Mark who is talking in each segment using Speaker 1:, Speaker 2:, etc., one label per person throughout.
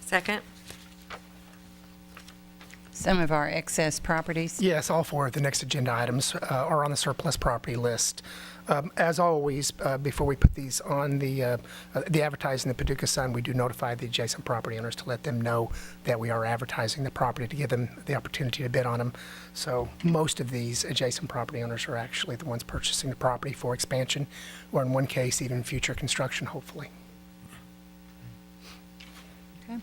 Speaker 1: Second?
Speaker 2: Some of our excess properties.
Speaker 3: Yes, all four of the next agenda items uh, are on the surplus property list. Um, As always, uh, before we put these on the, uh, uh, the advertising, the Paducah Sun, we do notify the adjacent property owners to let them know that we are advertising the property to give them the opportunity to bid on them. So most of these adjacent property owners are actually the ones purchasing the property for expansion, or in one case, even future construction, hopefully.
Speaker 2: Okay.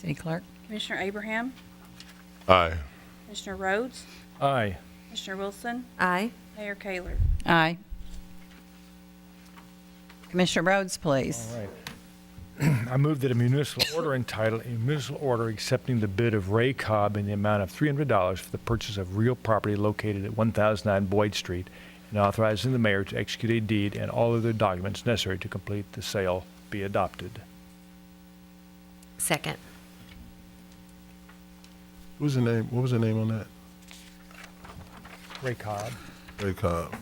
Speaker 2: City Clerk?
Speaker 4: Commissioner Abraham,
Speaker 5: Aye.
Speaker 4: Commissioner Rhodes,
Speaker 6: Aye.
Speaker 4: Commissioner Wilson,
Speaker 1: Aye.
Speaker 4: Mayor Kayler.
Speaker 2: Aye. Commissioner Rhodes, please.
Speaker 6: All right. I move that a municipal order entitled, a municipal order accepting the bid of Ray Cobb in the amount of $300 for the purchase of real property located at 1009 Boyd Street and authorizing the mayor to execute a deed and all other documents necessary to complete the sale be adopted.
Speaker 1: Second.
Speaker 5: What was the name? What was the name on that?
Speaker 6: Ray Cobb.
Speaker 5: Ray Cobb.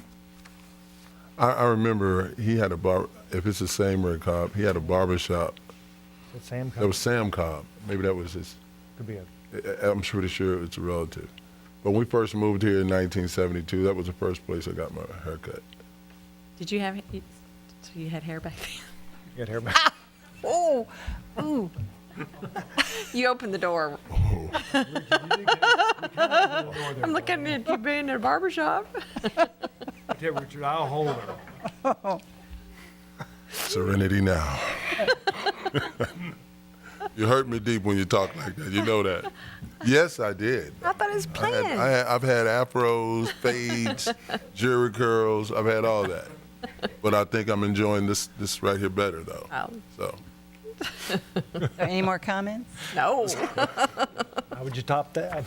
Speaker 5: I, I remember he had a bar. If it's the same Ray Cobb, he had a barber shop.
Speaker 6: Is it Sam
Speaker 5: That
Speaker 6: Cobb?
Speaker 5: was Sam Cobb. Maybe that was his.
Speaker 6: Could be a-
Speaker 5: I- I'm pretty sure it's a relative. But when we first moved here in 1972, that was the first place I got my haircut.
Speaker 1: Did you have, you- so you had hair back then?
Speaker 6: Get her back.
Speaker 1: Oh, ooh. You opened the door.
Speaker 5: Oh.
Speaker 1: I'm looking at you being in a barber shop.
Speaker 6: There, Richard, I'll hold her.
Speaker 5: Serenity now. you hurt me deep when you talk like that. You know that. Yes, I did.
Speaker 1: I thought it was
Speaker 5: I had, I
Speaker 1: planned.
Speaker 5: had, I've had afros, fades, jury curls. I've had all that, but I think I'm enjoying this this right here better though.
Speaker 1: Oh.
Speaker 5: So
Speaker 2: So Any more comments?
Speaker 1: No.
Speaker 6: How would you top that?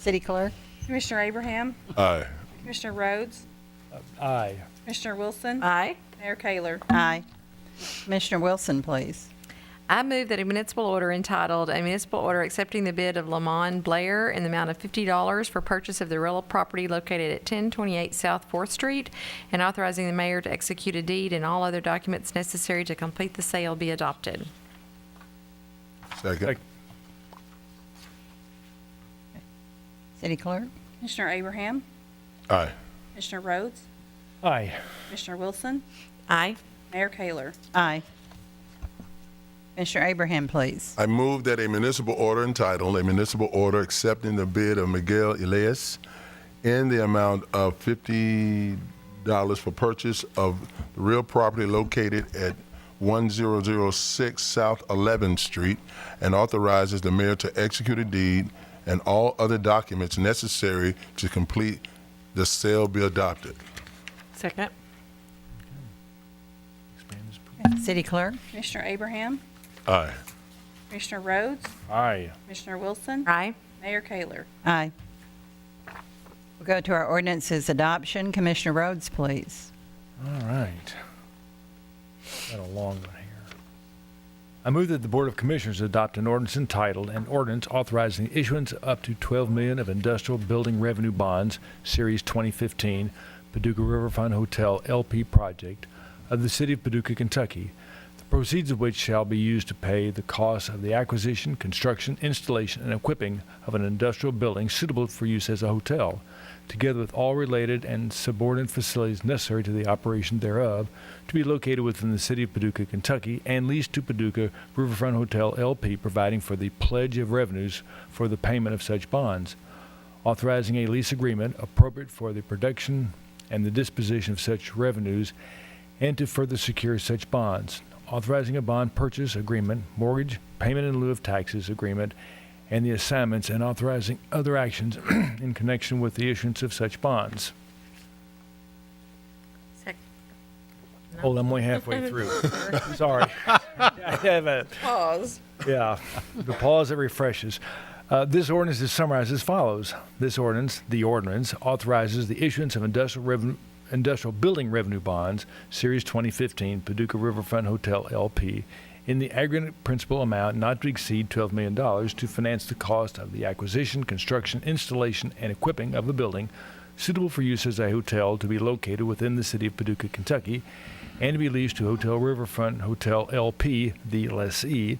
Speaker 2: City Clerk?
Speaker 4: Commissioner Abraham,
Speaker 5: aye,
Speaker 4: Commissioner Rhodes,
Speaker 6: Aye.
Speaker 4: Commissioner Wilson,
Speaker 1: Aye.
Speaker 4: Mayor Kayler.
Speaker 2: Aye. Commissioner Wilson, please.
Speaker 1: I move that a municipal order entitled, "A Municipal Order Accepting the Bid of Lamon Blair in the Amount of $50 for Purchase of the Real Property Located at 1028 South Fourth Street, and Authorizing the Mayor to Execute a Deed and All Other Documents Necessary to Complete the Sale Be Adopted."
Speaker 5: second.
Speaker 6: Second.
Speaker 2: City Clerk?
Speaker 4: Commissioner Abraham,
Speaker 5: Aye.
Speaker 4: Commissioner Rhodes,
Speaker 6: Aye.
Speaker 4: Commissioner Wilson,
Speaker 1: Aye.
Speaker 4: Mayor Kayler.
Speaker 2: Aye. Commissioner Abraham, please.
Speaker 5: I move that a municipal order entitled "A Municipal Order Accepting the Bid of Miguel Elias in the Amount of Fifty Dollars for Purchase of Real Property Located at 1006 South 11th Street, and authorizes the mayor to execute a deed and all other documents necessary to complete the sale be adopted."
Speaker 1: Second.
Speaker 2: City Clerk?
Speaker 4: Commissioner Abraham,
Speaker 5: Aye.
Speaker 4: Commissioner Rhodes,
Speaker 6: Aye.
Speaker 4: Commissioner Wilson,
Speaker 1: Aye.
Speaker 4: Mayor Kayler.
Speaker 2: Aye. We'll go to our ordinances adoption. Commissioner Rhodes, please.
Speaker 6: All right. Got a long one here. I move that the Board of Commissioners adopt an ordinance entitled, an ordinance authorizing the issuance of up to 12 million of industrial building revenue bonds, Series 2015, Paducah Riverfront Hotel LP project of the City of Paducah, Kentucky, the proceeds of which shall be used to pay the costs of the acquisition, construction, installation, and equipping of an industrial building suitable for use as a hotel, together with all related and subordinate facilities necessary to the operation thereof, to be located within the city of Paducah, Kentucky, and leased to Paducah Riverfront Hotel LP, providing for the pledge of revenues for the payment of such bonds, authorizing a lease agreement appropriate for the production and the disposition of such revenues, and to further secure such bonds, authorizing a bond purchase agreement, mortgage, payment in lieu of taxes agreement, and the assignments, and authorizing other actions in connection with the issuance of such bonds.
Speaker 1: Second.
Speaker 6: Hold on, I'm only halfway through. Sorry. I have a,
Speaker 1: Pause.
Speaker 6: yeah, the pause that refreshes. Uh, this ordinance is summarized as follows. This ordinance, the ordinance, authorizes the issuance of industrial revenue. Industrial Building Revenue Bonds, Series 2015, Paducah Riverfront Hotel LP, in the aggregate principal amount not to exceed $12 million to finance the cost of the acquisition, construction, installation, and equipping of a building suitable for use as a hotel to be located within the city of Paducah, Kentucky, and to be leased to Hotel Riverfront Hotel LP, the lessee,